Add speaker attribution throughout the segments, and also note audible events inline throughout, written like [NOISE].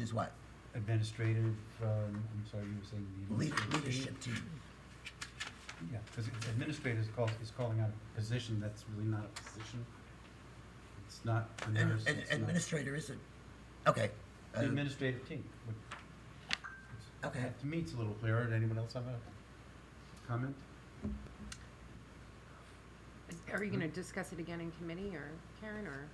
Speaker 1: is what?
Speaker 2: administrative, um, I'm sorry, you were saying the
Speaker 1: Lead-
Speaker 2: administrative. team?
Speaker 1: Leadership team.
Speaker 2: Yeah, because administrator is call, is calling out a position that's really not a position. It's not a
Speaker 1: An
Speaker 2: nurse,
Speaker 1: an
Speaker 2: it's not.
Speaker 1: administrator is a, okay.
Speaker 2: The
Speaker 1: uh,
Speaker 2: Administrative team. would-
Speaker 1: Okay.
Speaker 2: To me, it's a little clearer. Did anyone else have a comment?
Speaker 3: Are you gonna discuss it again in committee or Karen or?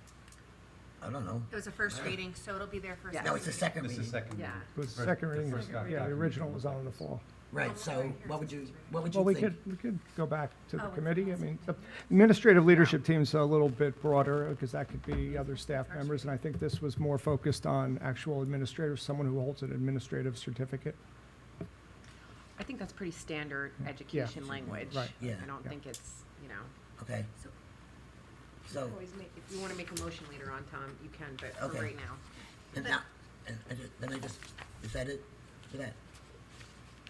Speaker 1: I don't know.
Speaker 4: It was a first reading, so it'll be there first.
Speaker 3: Yeah.
Speaker 1: No, it's the second
Speaker 2: This
Speaker 1: reading.
Speaker 2: is second.
Speaker 3: Yeah.
Speaker 2: reading.
Speaker 5: The
Speaker 2: First-
Speaker 5: second reading,
Speaker 2: first doc-
Speaker 5: yeah, the
Speaker 2: document.
Speaker 5: original was out on the floor.
Speaker 1: Right, so what would you, what would
Speaker 5: Well,
Speaker 1: you
Speaker 5: we could,
Speaker 1: think?
Speaker 5: we could go back to the
Speaker 4: Oh, it's
Speaker 5: committee. I
Speaker 4: also-
Speaker 5: mean, the administrative leadership team's a little bit broader, because that could be other staff members, and I think this was more focused on actual administrators, someone who holds an administrative certificate.
Speaker 3: I think that's pretty standard education language.
Speaker 5: Right.
Speaker 1: Yeah.
Speaker 3: I don't
Speaker 5: Yeah.
Speaker 3: think it's, you know,
Speaker 1: Okay,
Speaker 4: So-
Speaker 1: so,
Speaker 3: always make, if you wanna make a motion later on, Tom, you can, but
Speaker 1: Oh. Okay.
Speaker 3: for right now.
Speaker 1: and now, and I just, then I just, is that it for that?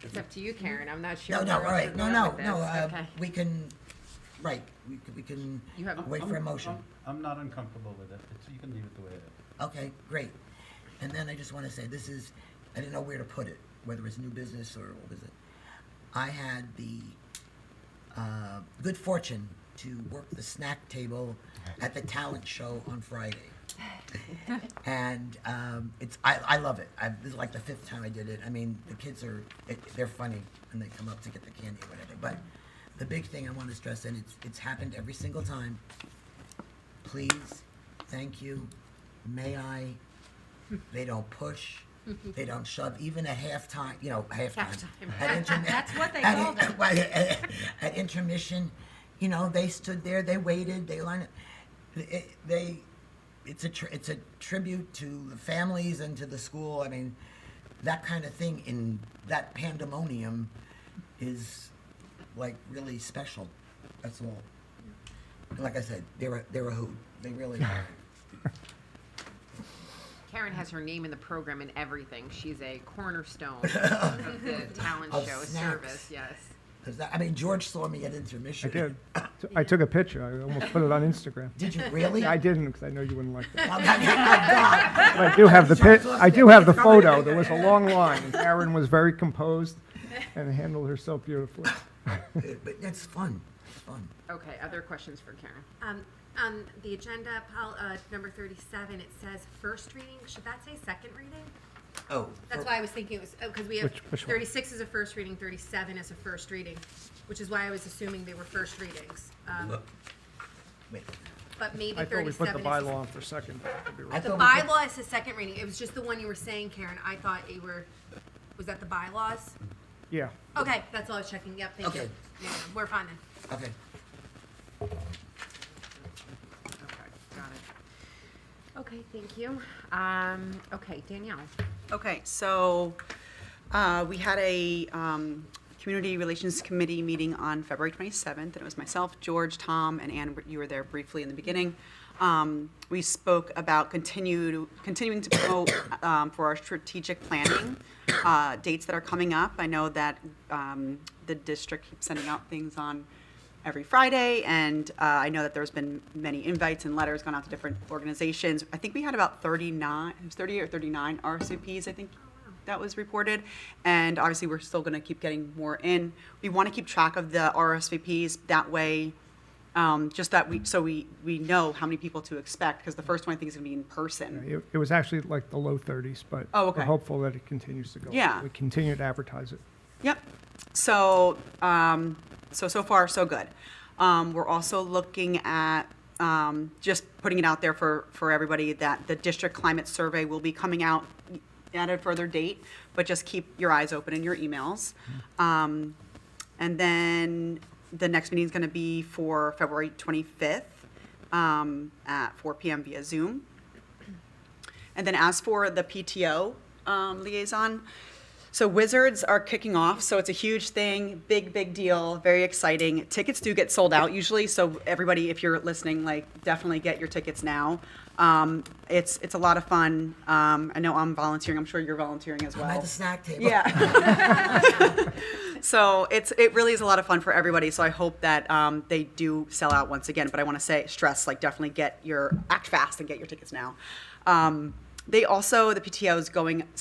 Speaker 3: It's up to you, Karen. I'm not sure.
Speaker 1: No, no, all
Speaker 3: where else
Speaker 1: right,
Speaker 3: we're
Speaker 1: no,
Speaker 3: going
Speaker 1: no,
Speaker 3: with
Speaker 1: no,
Speaker 3: this.
Speaker 1: uh,
Speaker 3: Okay.
Speaker 1: we can, right, we can, we can
Speaker 3: You have,
Speaker 2: I'm-
Speaker 1: wait for a
Speaker 2: I'm-
Speaker 1: motion.
Speaker 2: I'm- I'm not uncomfortable with it. It's- You can leave it the way it is.
Speaker 1: Okay, great. And then I just want to say, this is, I didn't know where to put it, whether it's new business or what was it. I had the uh, good fortune to work the snack table at the talent show on Friday. and um, it's I, I love it. I, this is like the fifth time I did it. I mean, the kids are it, they're funny and they come up to get the candy or whatever. But the big thing I want to stress, and it's it's happened every single time. Please, thank you, may I. They don't push. They don't shove. Even at halftime, you know, halftime.
Speaker 3: Halftime.
Speaker 1: At intermi-
Speaker 4: That's what they
Speaker 1: at-
Speaker 4: call them.
Speaker 1: well, at, [LAUGHS] at intermission, you know, they stood there, they waited, they lined up. It- They, it's a, tr- it's a tribute to the families and to the school. I mean, that kind of thing in that pandemonium is like really special. That's all. And like I said, they're a, they're a hoot. They really are.
Speaker 3: Karen has her name in the program and everything. She's a
Speaker 1: [LAUGHS]
Speaker 3: cornerstone of the talent
Speaker 1: Of
Speaker 3: show
Speaker 1: snacks.
Speaker 3: service, yes.
Speaker 1: 'Cause that- I mean, George saw me at
Speaker 5: I
Speaker 1: intermission. [LAUGHS]
Speaker 5: did, I took a picture, I almost put it on Instagram.
Speaker 1: Did you really?
Speaker 5: [LAUGHS] I didn't, because I know you wouldn't like
Speaker 1: [LAUGHS]
Speaker 5: that.
Speaker 1: Oh, my God.
Speaker 5: But I do have the pi, I do have the photo, there was a long line, and Karen was very composed and handled herself beautifully.
Speaker 1: It- But it's fun. It's fun.
Speaker 3: Okay, other questions for Karen?
Speaker 4: Um, on the agenda, pol, uh, number thirty-seven, it says first reading, should that say second reading?
Speaker 1: Oh.
Speaker 4: That's why I was thinking it was, oh, cause we have,
Speaker 5: Which- which one?
Speaker 4: thirty-six is a first reading, thirty-seven is a first reading, which is why I was assuming they were first readings. Um,
Speaker 1: Oh, Wait.
Speaker 4: but maybe
Speaker 5: I thought
Speaker 4: thirty-seven
Speaker 5: we
Speaker 4: is.
Speaker 5: put the
Speaker 4: a-
Speaker 5: bylaw on for second. but I could be wrong.
Speaker 1: I
Speaker 4: The
Speaker 1: thought we put-
Speaker 4: bylaw is the second reading, it was just the one you were saying, Karen, I thought you were, was that the bylaws?
Speaker 5: Yeah,
Speaker 4: Okay, that's all I was checking, yep, thank you.
Speaker 1: Okay.
Speaker 4: Yeah, We're fine then.
Speaker 1: Okay.
Speaker 3: Okay, got it. Okay, thank you. Um, okay, Danielle.
Speaker 6: Okay, so uh, we had a um, Community Relations Committee meeting on February 27th, and it was myself, George, Tom, and Ann, you were there briefly in the beginning. Um, We spoke about continued, continuing to promote um, for our strategic planning, uh, dates that are coming up. I know that um, the district keeps sending out things on every Friday, and uh, I know that there's been many invites and letters gone out to different organizations. I think we had about 39, it was 30 or 39 RSVPs, I think that was reported, and obviously we're still going to keep getting more in. We want to keep track of the RSVPs that way. Um, just that we so we we know how many people to expect because the first one I think is going to be in person.
Speaker 5: it, it was actually like the low thirties, but
Speaker 6: Oh,
Speaker 5: we're
Speaker 6: okay.
Speaker 5: hopeful that it continues to go. up.
Speaker 6: Yeah.
Speaker 5: We continue to advertise it.
Speaker 6: Yep. So, um, so, so far, so good. Um, we're also looking at, um, just putting it out there for, for everybody that the district climate survey will be coming out at a further date, but just keep your eyes open in your emails. Um, and then the next meeting is going to be for February 25th, um, at 4 PM via Zoom. And then as for the PTO um, liaison, so Wizards are kicking off, so it's a huge thing, big, big deal, very exciting. Tickets do get sold out usually, so everybody, if you're listening, like definitely get your tickets now. Um, it's it's a lot of fun. Um, I know I'm volunteering. I'm sure you're volunteering as well.
Speaker 1: I'm at the snack table.
Speaker 6: Yeah. so it's it really is a lot of fun for everybody. So I hope that um, they do sell out once again. But I want to say stress like definitely get your act fast and get your tickets now. Um, they also the PTO is going